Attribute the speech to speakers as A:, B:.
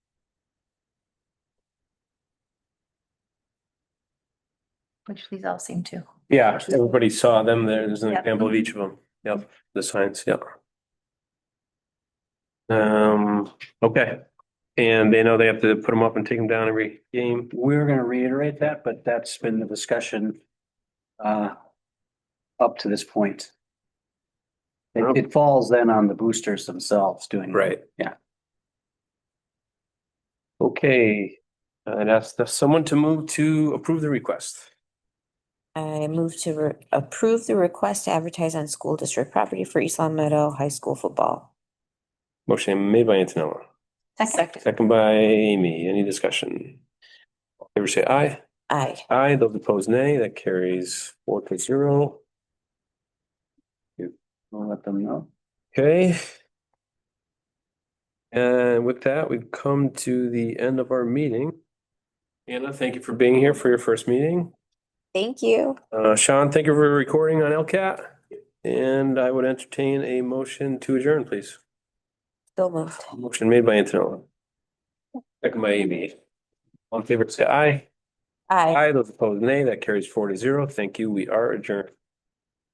A: which these all seem to.
B: Yeah, everybody saw them. There- There's an
A: Yep.
B: example of each of them. Yep, the signs, yep. Um, okay. And they know they have to put them up and take them down every game.
C: We're gonna reiterate that, but that's been the discussion uh up to this point. It it falls then on the boosters themselves doing. Yeah.
B: Okay, I'd ask the- someone to move to approve the request.
D: I move to re- approve the request to advertise on school district property for East Long Meadow High School football.
B: Motion made by Antonella,
A: Second.
B: second by Amy. Any discussion? All in Favor say aye.
D: Aye.
B: Aye, those opposed nay. That carries four to zero.
C: We'll let them know.
B: Okay. And with that, we've come to the end of our meeting. Anna, thank you for being here for your first meeting.
D: Thank you.
B: Uh, Sean, thank you for recording on LCAT. And I would entertain a motion to adjourn, please.
D: So moved.
B: Motion made by Antonella. Second by Amy. All in favor, say aye.
D: Aye.
B: Aye, those opposed, nay. That carries four to zero. Thank you. We are adjourned.